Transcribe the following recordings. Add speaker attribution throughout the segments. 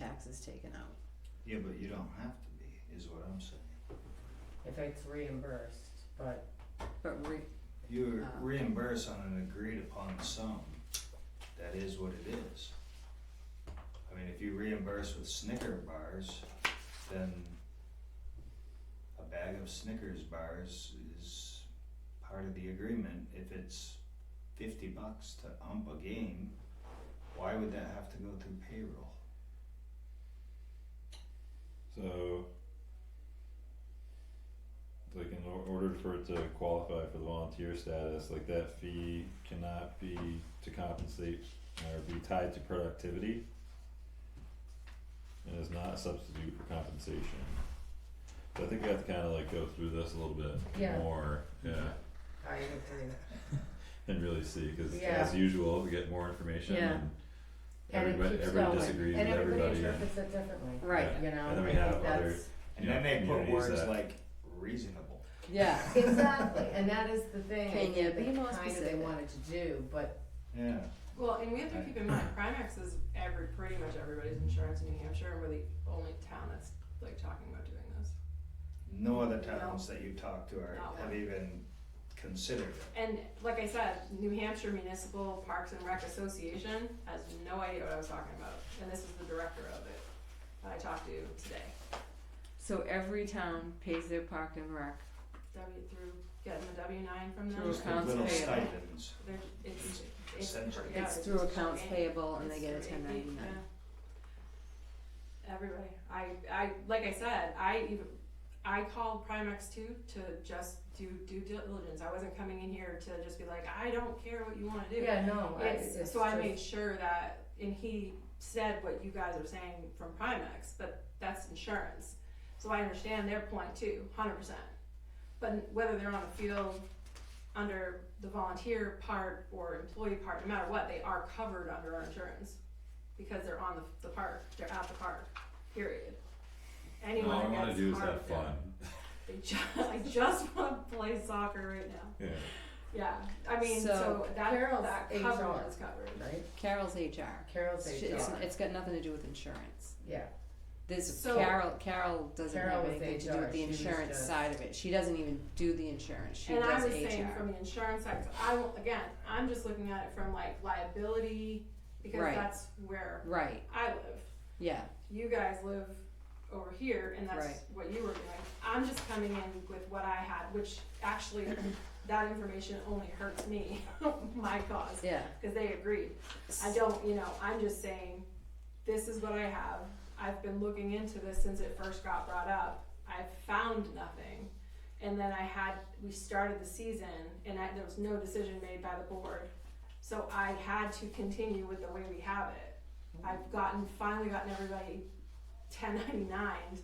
Speaker 1: taxes taken out.
Speaker 2: Yeah, but you don't have to be, is what I'm saying.
Speaker 3: if it's reimbursed, but
Speaker 1: But we,
Speaker 4: Oh,
Speaker 2: You're
Speaker 1: Uh.
Speaker 2: reimbursed on an agreed upon sum. That is what it is. I mean, if you reimburse with Snicker bars, then a bag of Snickers bars is part of the agreement. If it's fifty bucks to ump a game, why would that have to go through payroll?
Speaker 5: So, like in or- order for it to qualify for the volunteer status, like that fee cannot be to compensate or be tied to productivity. And is not a substitute for compensation. So I think we have to kinda like go through this a little bit
Speaker 3: Yeah.
Speaker 5: more, yeah,
Speaker 3: I agree.
Speaker 5: and really see, cause
Speaker 3: Yeah.
Speaker 5: as usual, we get more information
Speaker 1: Yeah.
Speaker 5: and
Speaker 3: And it
Speaker 5: everybody,
Speaker 3: keeps
Speaker 5: everybody
Speaker 3: going.
Speaker 5: disagrees with
Speaker 3: And
Speaker 5: everybody
Speaker 3: everybody
Speaker 5: and-
Speaker 3: interprets it differently,
Speaker 1: right,
Speaker 3: you know,
Speaker 5: And then
Speaker 3: I
Speaker 5: we
Speaker 3: think
Speaker 5: have other-
Speaker 3: that's-
Speaker 2: And
Speaker 5: You
Speaker 2: then
Speaker 5: know,
Speaker 2: they put
Speaker 5: communities
Speaker 2: words
Speaker 5: that-
Speaker 2: like reasonable.
Speaker 1: yeah,
Speaker 3: Exactly, and that is the thing,
Speaker 1: Can
Speaker 3: I
Speaker 1: you
Speaker 3: think
Speaker 1: be
Speaker 3: that
Speaker 1: more
Speaker 3: kinda they
Speaker 1: specific?
Speaker 3: wanted to do, but
Speaker 2: Yeah.
Speaker 4: Well, and we have to keep in mind, Primax is every, pretty much everybody's insurance in New Hampshire, and we're the only town that's like talking about doing this.
Speaker 2: No other towns that you talk to are,
Speaker 4: Mm, Not
Speaker 2: have
Speaker 4: one.
Speaker 2: even considered it.
Speaker 4: And like I said, New Hampshire Municipal Parks and Rec Association has no idea what I was talking about, and this is the director of it that I talked to today.
Speaker 1: so every town pays their park and rec
Speaker 4: W through getting the W nine from them.
Speaker 1: Through
Speaker 4: and
Speaker 1: accounts
Speaker 2: Little
Speaker 1: payable.
Speaker 2: stipends.
Speaker 4: they're- It's, it's,
Speaker 2: Essentially.
Speaker 4: yeah,
Speaker 1: It's through accounts
Speaker 4: it's-
Speaker 1: payable and they
Speaker 4: It's
Speaker 1: get a
Speaker 4: through AP,
Speaker 1: 1099.
Speaker 4: yeah. Everybody, I, I, like I said, I even, I called Primex too to just do due diligence, I wasn't coming in here to just be like, I don't care what you wanna do.
Speaker 3: yeah, no, I, it's
Speaker 4: It's, so I
Speaker 3: just-
Speaker 4: made sure that, and he said what you guys are saying from Primex, but that's insurance, so I understand their point too, hundred percent. But whether they're on the field under the volunteer part or employee part, no matter what, they are covered under our insurance. Because they're on the, the park, they're at the park, period.
Speaker 5: No,
Speaker 4: Anyone
Speaker 5: all I wanna
Speaker 4: that
Speaker 5: do
Speaker 4: gets
Speaker 5: is
Speaker 4: harmed,
Speaker 5: have fun,
Speaker 4: they just, I just wanna play soccer right now,
Speaker 5: yeah.
Speaker 4: yeah, I mean,
Speaker 1: So,
Speaker 4: so that,
Speaker 3: Carol's
Speaker 4: that
Speaker 3: HR.
Speaker 4: cover is covered.
Speaker 3: Right,
Speaker 1: Carol's HR.
Speaker 3: Carol's
Speaker 1: She- It's,
Speaker 3: HR,
Speaker 1: it's got nothing to do with insurance.
Speaker 3: yeah,
Speaker 1: This
Speaker 4: So-
Speaker 1: Carol, Carol doesn't
Speaker 3: Carol
Speaker 1: have
Speaker 3: was
Speaker 1: anything to do
Speaker 3: HR.
Speaker 1: with the
Speaker 3: She was
Speaker 1: insurance
Speaker 3: just-
Speaker 1: side of it. She doesn't even do the insurance. She
Speaker 4: and I
Speaker 1: does
Speaker 4: was
Speaker 1: HR.
Speaker 4: saying from the insurance side, 'cause I will, again, I'm just looking at it from like liability because
Speaker 1: Right.
Speaker 4: that's where
Speaker 1: right.
Speaker 4: I live.
Speaker 1: Yeah.
Speaker 4: You guys live over here, and that's
Speaker 1: Right.
Speaker 4: what you were doing. I'm just coming in with what I had, which actually that information only hurts me, my cause,
Speaker 1: Yeah.
Speaker 4: because they agreed. I don't, you know, I'm just saying, this is what I have. I've been looking into this since it first got brought up. I've found nothing. And then I had, we started the season and I, there was no decision made by the board. So I had to continue with the way we have it. I've gotten, finally gotten everybody ten ninety-nine,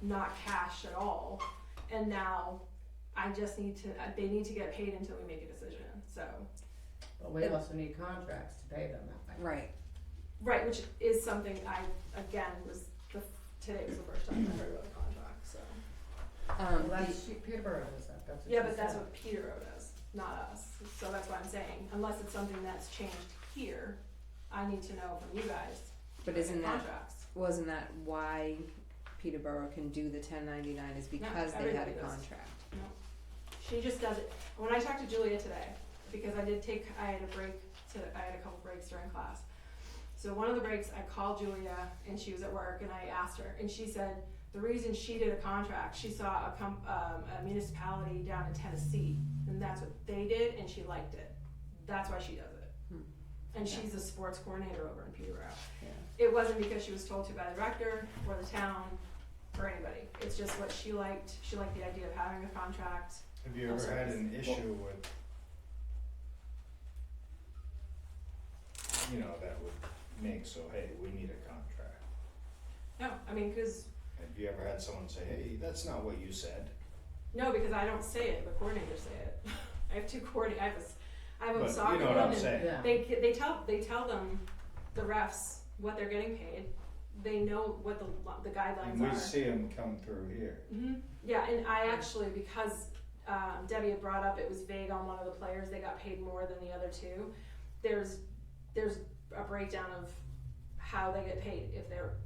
Speaker 4: not cash at all. And now I just need to, they need to get paid until we make a decision, so.
Speaker 3: but we also need contracts to pay them that way.
Speaker 1: Right.
Speaker 4: Right, which is something I, again, was the, today was the first time I heard about the contract, so.
Speaker 1: Um,
Speaker 3: Well,
Speaker 1: the-
Speaker 3: that's, she, Peterborough does that, that's what she
Speaker 4: Yeah, but that's
Speaker 3: said.
Speaker 4: what Peter wrote us, not us, so that's what I'm saying, unless it's something that's changed here, I need to know from you guys.
Speaker 1: But isn't that-
Speaker 4: Contracts,
Speaker 1: wasn't that why Peterborough can do the 1099 is because they had a
Speaker 4: everybody does.
Speaker 1: contract.
Speaker 4: no, she just does it, when I talked to Julia today, because I did take, I had a break to, I had a couple breaks during class. So one of the breaks, I called Julia and she was at work and I asked her and she said, the reason she did a contract, she saw a com- um, a municipality down in Tennessee and that's what they did and she liked it. That's why she does it.
Speaker 1: Hmm.
Speaker 4: And
Speaker 1: Yeah.
Speaker 4: she's a sports coordinator over in Peterborough.
Speaker 1: Yeah.
Speaker 4: It wasn't because she was told to by the director or the town or anybody. It's just what she liked. She liked the idea of having a contract.
Speaker 2: Have you
Speaker 4: I'm
Speaker 2: ever
Speaker 4: sorry,
Speaker 2: had
Speaker 4: this-
Speaker 2: an
Speaker 4: well-
Speaker 2: issue with, you know, that would make so, hey, we need a contract?
Speaker 4: No, I mean, cause,
Speaker 2: Have you ever had someone say, hey, that's not what you said?
Speaker 4: no, because I don't say it, the coordinators say it. I have two coordinators, I have a, s- I have a
Speaker 2: But
Speaker 4: soccer
Speaker 2: you know what
Speaker 4: one
Speaker 2: I'm
Speaker 4: and
Speaker 2: saying?
Speaker 3: Yeah,
Speaker 4: They ca- they tell they tell them the refs what they're getting paid. They know what the lo- the guidelines
Speaker 2: And we
Speaker 4: are.
Speaker 2: see them come through here.
Speaker 4: hmm Yeah, and I actually because um, Debbie had brought up it was vague on one of the players. They got paid more than the other two. There's there's a breakdown of how they get paid if they're